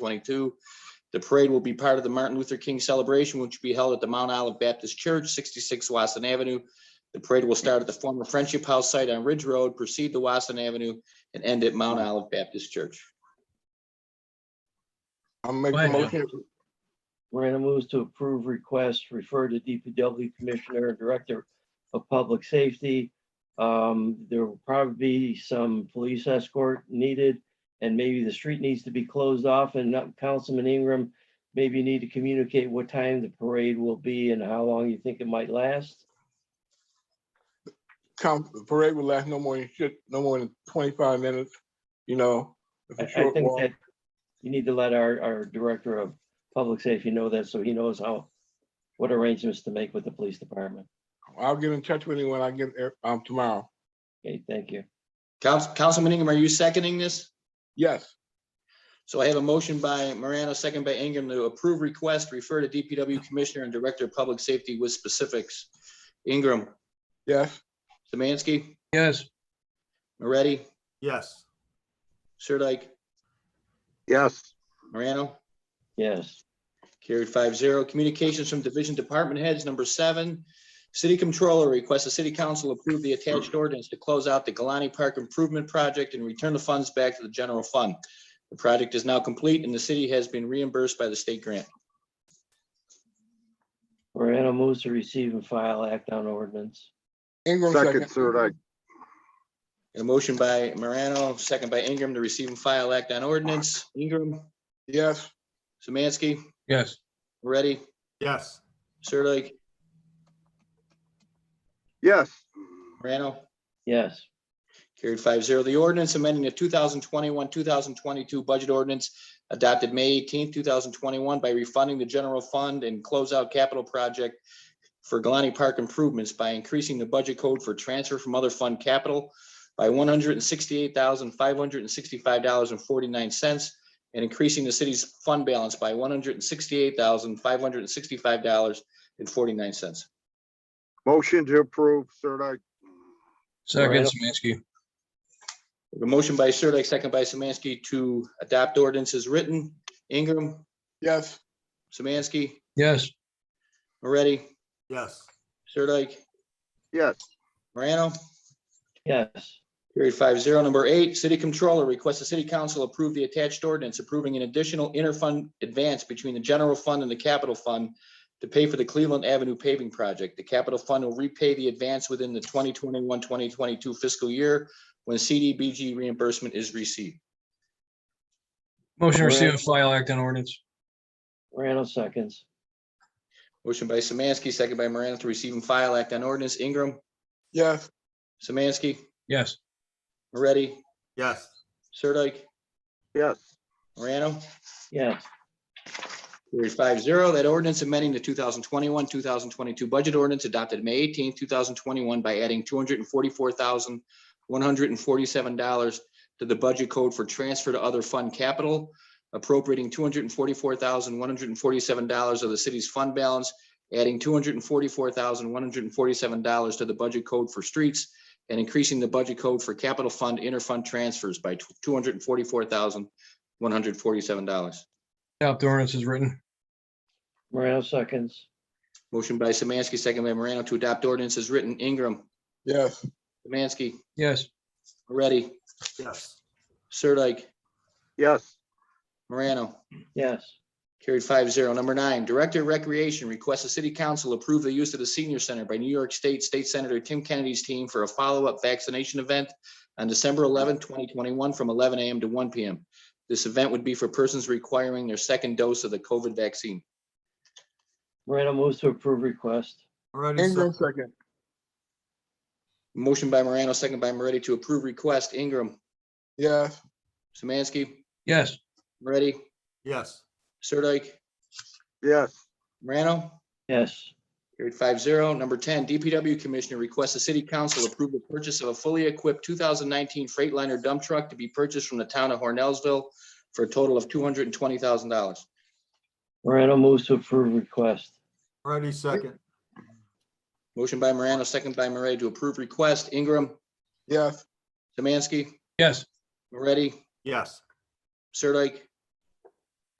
2022. The parade will be part of the Martin Luther King celebration, which will be held at the Mount Olive Baptist Church, 66 Wasson Avenue. The parade will start at the former Friendship House site on Ridge Road, proceed to Wasson Avenue, and end at Mount Olive Baptist Church. I'll make Go the ahead, Joe. motion. Morano moves to approve request, refer to DPW Commissioner and Director of Public Safety. Um, there will probably be some police escort needed, and maybe the street needs to be closed off, and uh, Councilman Ingram, maybe you need to communicate what time the parade will be and how long you think it might last. Count, the parade will last no more than shit, no more than twenty-five minutes, you know. It's I a I short think walk. that you need to let our, our Director of Public Safety know that, so he knows how, what arrangements to make with the police department. I'll get in touch with you when I get, there, um, tomorrow. Okay, thank you. Council- Councilman Ingram, are you seconding this? Yes, So I have a motion by Morano, second by Ingram to approve request, refer to DPW Commissioner and Director of Public Safety with specifics. Ingram, yes, Samansky, yes, Moretti, yes, Sirdike, yes, Morano. Yes, Carried five zero. Communications from division department heads, number seven. City Controller requests the city council approve the attached ordinance to close out the Galani Park Improvement Project and return the funds back to the general fund. The project is now complete and the city has been reimbursed by the state grant. Morano moves to receive and file act on ordinance. Ingram second, second. Sirdike, A motion by Morano, second by Ingram to receive and file act on ordinance. Ingram, Yes, Samansky, yes, Moretti, yes, Sirdike, yes, Morano. Yes, Carried five zero. The ordinance amending the two thousand twenty-one, two thousand twenty-two budget ordinance adopted May eighteenth, two thousand twenty-one by refunding the general fund and closeout capital project for Galani Park improvements by increasing the budget code for transfer from other fund capital by one hundred and sixty-eight thousand, five hundred and sixty-five dollars and forty-nine cents and increasing the city's fund balance by one hundred and sixty-eight thousand, five hundred and sixty-five dollars and forty-nine cents. motion to approve, Sirdike, second Moreno. Semansky, The motion by Sirdike, second by Samansky to adopt ordinance as written. Ingram, yes, Samansky, yes, Moretti, yes, Sirdike, yes, Morano. yes, Period five zero. Number eight, city controller requests the city council approve the attached ordinance approving an additional interfund advance between the general fund and the capital fund to pay for the Cleveland Avenue paving project. The capital fund will repay the advance within the 2021-2022 fiscal year when CDBG reimbursement is received. motion to receive Moreno. and file act on ordinance, Morano seconds. Motion by Samansky, second by Morano to receive and file act on ordinance. Ingram, yes, Samansky, yes, Moretti, yes, Sirdike, yes, Morano. Yes, Carried five zero. That ordinance amending the two thousand twenty-one, two thousand twenty-two budget ordinance adopted May 18, thousand twenty-one by adding two hundred and forty-four thousand one hundred and forty-seven dollars to the budget code for transfer to other fund capital, appropriating two hundred and forty-four thousand one hundred and forty-seven dollars of the city's fund balance, adding two hundred and forty-four thousand one hundred and forty-seven dollars to the budget code for streets, and increasing the budget code for capital fund interfund transfers by two hundred and forty-four thousand one hundred and forty-seven dollars. adopt ordinance is written, Morano seconds. Motion by Samansky, second by Morano to adopt ordinance as written. Ingram, yes, Samansky, yes, Moretti, yes, Sirdike, yes, Morano. Yes, Carried five zero. Number nine, Director of Recreation requests the city council approve the use of the senior center by New York State State Senator Tim Kennedy's team for a follow-up vaccination event on December 11, twenty twenty-one, from eleven AM to one PM. This event would be for persons requiring their second dose of the COVID vaccine. Morano moves to approve request. already Ingram said, second, Motion by Morano, second by Moretti to approve request. Ingram, yes, Samansky, yes, Moretti, yes, Sirdike, yes, Morano. Yes, Carried five zero. Number ten, DPW Commissioner requests the city council approve the purchase of a fully equipped two thousand nineteen Freightliner dump truck to be purchased from the town of Hornellsville for a total of two hundred and twenty thousand dollars. Morano moves to approve request. already second, Motion by Morano, second by Moretti to approve request. Ingram, yes, Samansky, yes, Moretti, yes, Sirdike,